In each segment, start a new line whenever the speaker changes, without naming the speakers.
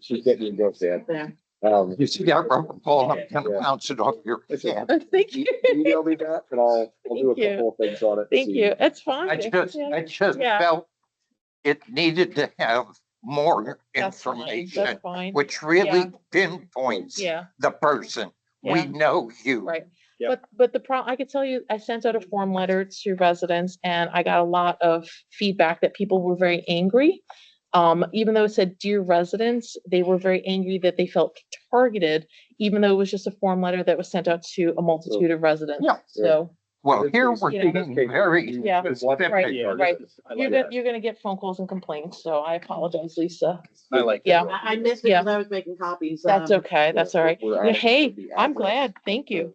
She's getting endorsed there.
Yeah.
Um,
You see that rubber ball, I'm gonna
Yeah.
bounce it off your hand.
Thank you.
you- email me that and I'll, I'll do a
Thank you.
couple of things on it.
Thank
see.
you. It's fine.
I just, I just
Yeah.
felt it needed to have more
That's fine.
information,
That's fine.
which really
Yeah.
pinpoints
Yeah,
the person. We
yeah,
know you.
right.
Yep.
But, but the problem, I could tell you, I sent out a form letter to residents and I got a lot of feedback that people were very angry. Um, even though it said dear residents, they were very angry that they felt targeted, even though it was just a form letter that was sent out to a multitude of residents.
Yeah.
So
Well,
This
here
is-
we're
Yeah.
being
Okay.
very
Yeah.
specific.
Yeah. right. you're gonna, you're gonna get phone calls and complats. So I apologize, Lisa.
I like.
Yeah.
I, I missed it
Yeah.
because I was making copies.
That's
um,
okay. That's all right. Yeah, Hey, I'm glad. Thank you.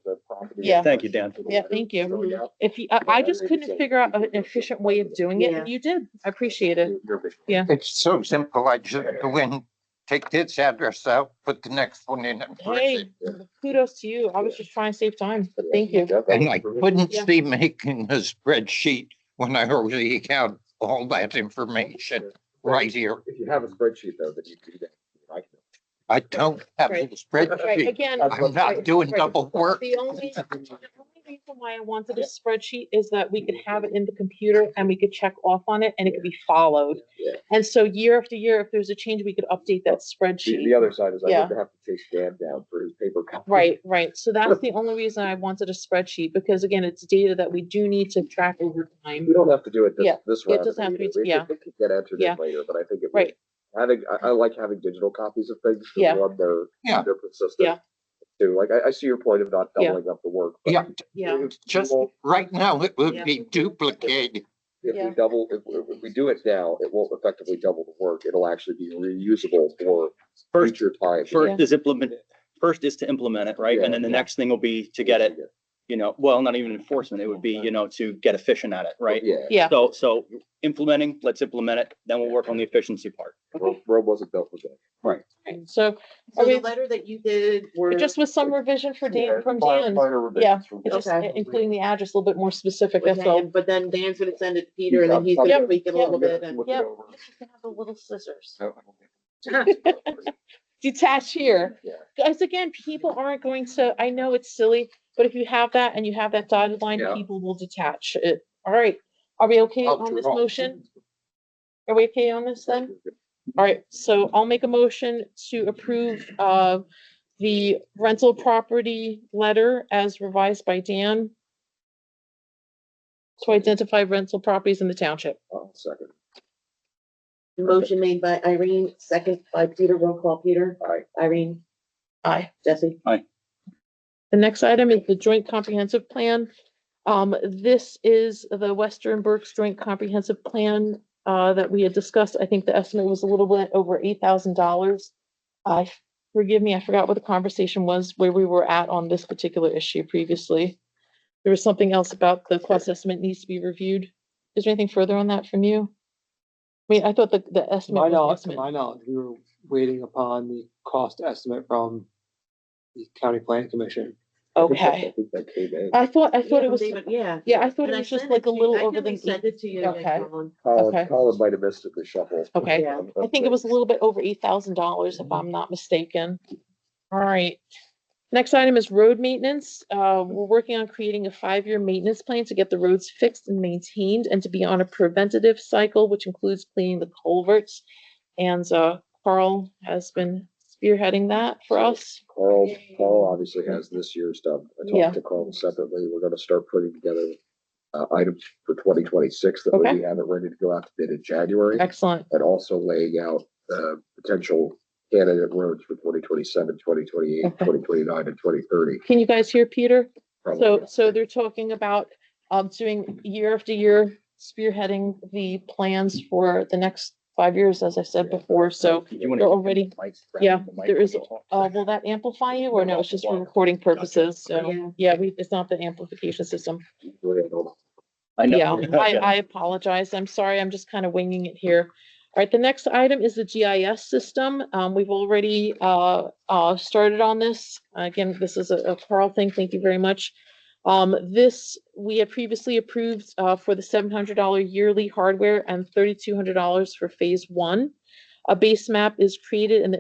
Yeah.
Thank you, Dan.
Yeah, thank you. If you, I, I just couldn't figure out an efficient way of doing it,
Yeah.
and you did. I appreciate it.
It's so simple. I just go in, take this address out, put the next one in and press
Hey,
it.
kudos to you. I was just trying to save time, but thank you.
And I couldn't
Yeah.
see making a spreadsheet when I already had all that information right here.
If you have a spreadsheet though, that you do that. I can-
I don't have a
Right. Right,
spreadsheet.
again,
I've
I'm not
right,
doing
right.
double work.
the only, the only reason why I wanted a spreadsheet is that we could have it in the computer and we could check off on it and it could be followed.
Yeah.
And so year after year, if there's a change, we could update that
The,
spreadsheet.
the other side is I
Yeah.
would have to chase Dan down for his paper. copy.
Right, right. So that's the only reason I wanted a spreadsheet, because again, it's data that we do need to track over time.
We don't have to do it this,
Yeah,
this
it
round.
doesn't have to be-
either. We could-
yeah.
we could Get entered
Yeah.
in later, but I think it. would-
Right.
Having, I, I like having digital copies of things. 'cause
Yeah.
one, They're,
Yeah.
they're persistent.
Yeah.
Too, like, I, I see your point of not
Yeah.
doubling up the work. but
Yeah,
Yeah.
if we
just
won't-
right now it would
Yeah.
be duplicated.
If
Yeah.
we double, if, we- if we do it now, it won't effectively double the work. It'll actually be reusable for
First,
future time.
first is implement, first is to implement it, right? And then the
Yeah.
next thing will be to get it, you know, well, not even enforcement, it would be, you know, to get efficient at it, right?
Yeah.
Yeah.
So, so implementing, let's implement it, then we'll work on the efficiency part.
Ro- Rome wasn't built for that.
Right, So
So
Okay.
the letter that you did were.
just with some revision for Dan, from Dan, yeah, it's just
Okay.
including the address a little bit more specific,
with
that's all.
Dan, But then Dan's gonna send it to Peter and then he's gonna
Yep.
tweak it a little bit and.
Yep. The little scissors. Detach here,
Yeah.
guys, again, people aren't going to, I know it's silly, but if you have that and you have that dotted line,
Yeah.
people will detach it. All right, are we okay
I'll
on this
draw.
motion? Are we okay on this then? All right, so I'll make a motion to approve of the rental property letter as revised by Dan to identify rental properties in the township.
I'll Second,
Motion made by Irene, second by Peter, roll call Peter,
I,
Irene,
Aye.
Jesse.
The next item is the joint comprehensive plan. Um, this is the Western Berks Joint Comprehensive Plan, uh, that we had discussed. I think the estimate was a little bit over eight thousand dollars. I, forgive me, I forgot what the conversation was, where we were at on this particular issue previously. There was something else about the cost estimate needs to be reviewed. Is there anything further on that from you? I mean, I thought the, the
To my
estimate.
knowledge,
was
to
the
my
estimate.
knowledge, we were waiting upon the cost estimate from the county planning commission.
I
Okay,
think that came in.
I thought, I thought
Yeah,
it was,
David, Yeah.
yeah, I thought
And
it was
sent
just like a
to you.
little
I
over
can
the.
resend it to you.
Okay.
Colin.
Colin,
Okay.
Colin might have missed it, the shuffle. Um,
Okay.
Yeah.
I think it was a little bit over eight thousand dollars, if I'm not mistaken. All right. Next item is road maintenance. Uh, we're working on creating a five-year maintenance plan to get the roads fixed and maintained and to be on a preventative cycle, which includes cleaning the culverts. And, uh, Carl has been spearheading that for us.
Carl, Carl obviously has this year's done. I
Yeah.
talked to Carl separately. We're gonna start putting together uh, items for twenty twenty-six that way
Okay.
we have it ready to go out to bid in January.
Excellent.
And also laying out, uh, potential candidate roads for 2027, 2028, 2029,
Okay.
and twenty thirty.
Can you guys hear Peter? So, so they're talking about, um, doing year after year spearheading the plans for the next five years, as I said before, so.
You're
They're already, yeah, there is, uh, will that amplify you or no, it's just for recording purposes,
Yeah.
so, yeah, we, it's not the amplification system.
I
Yeah,
know.
I, I apologize, I'm sorry, I'm just kind of winging it here. All right, the next item is the GIS system, um, we've already, uh, uh, started on this. Again, this is a a Carl thing, thank you very much. Um, this, we had previously approved, uh, for the seven hundred dollar yearly hardware and thirty-two hundred dollars for phase one. A base map is created and the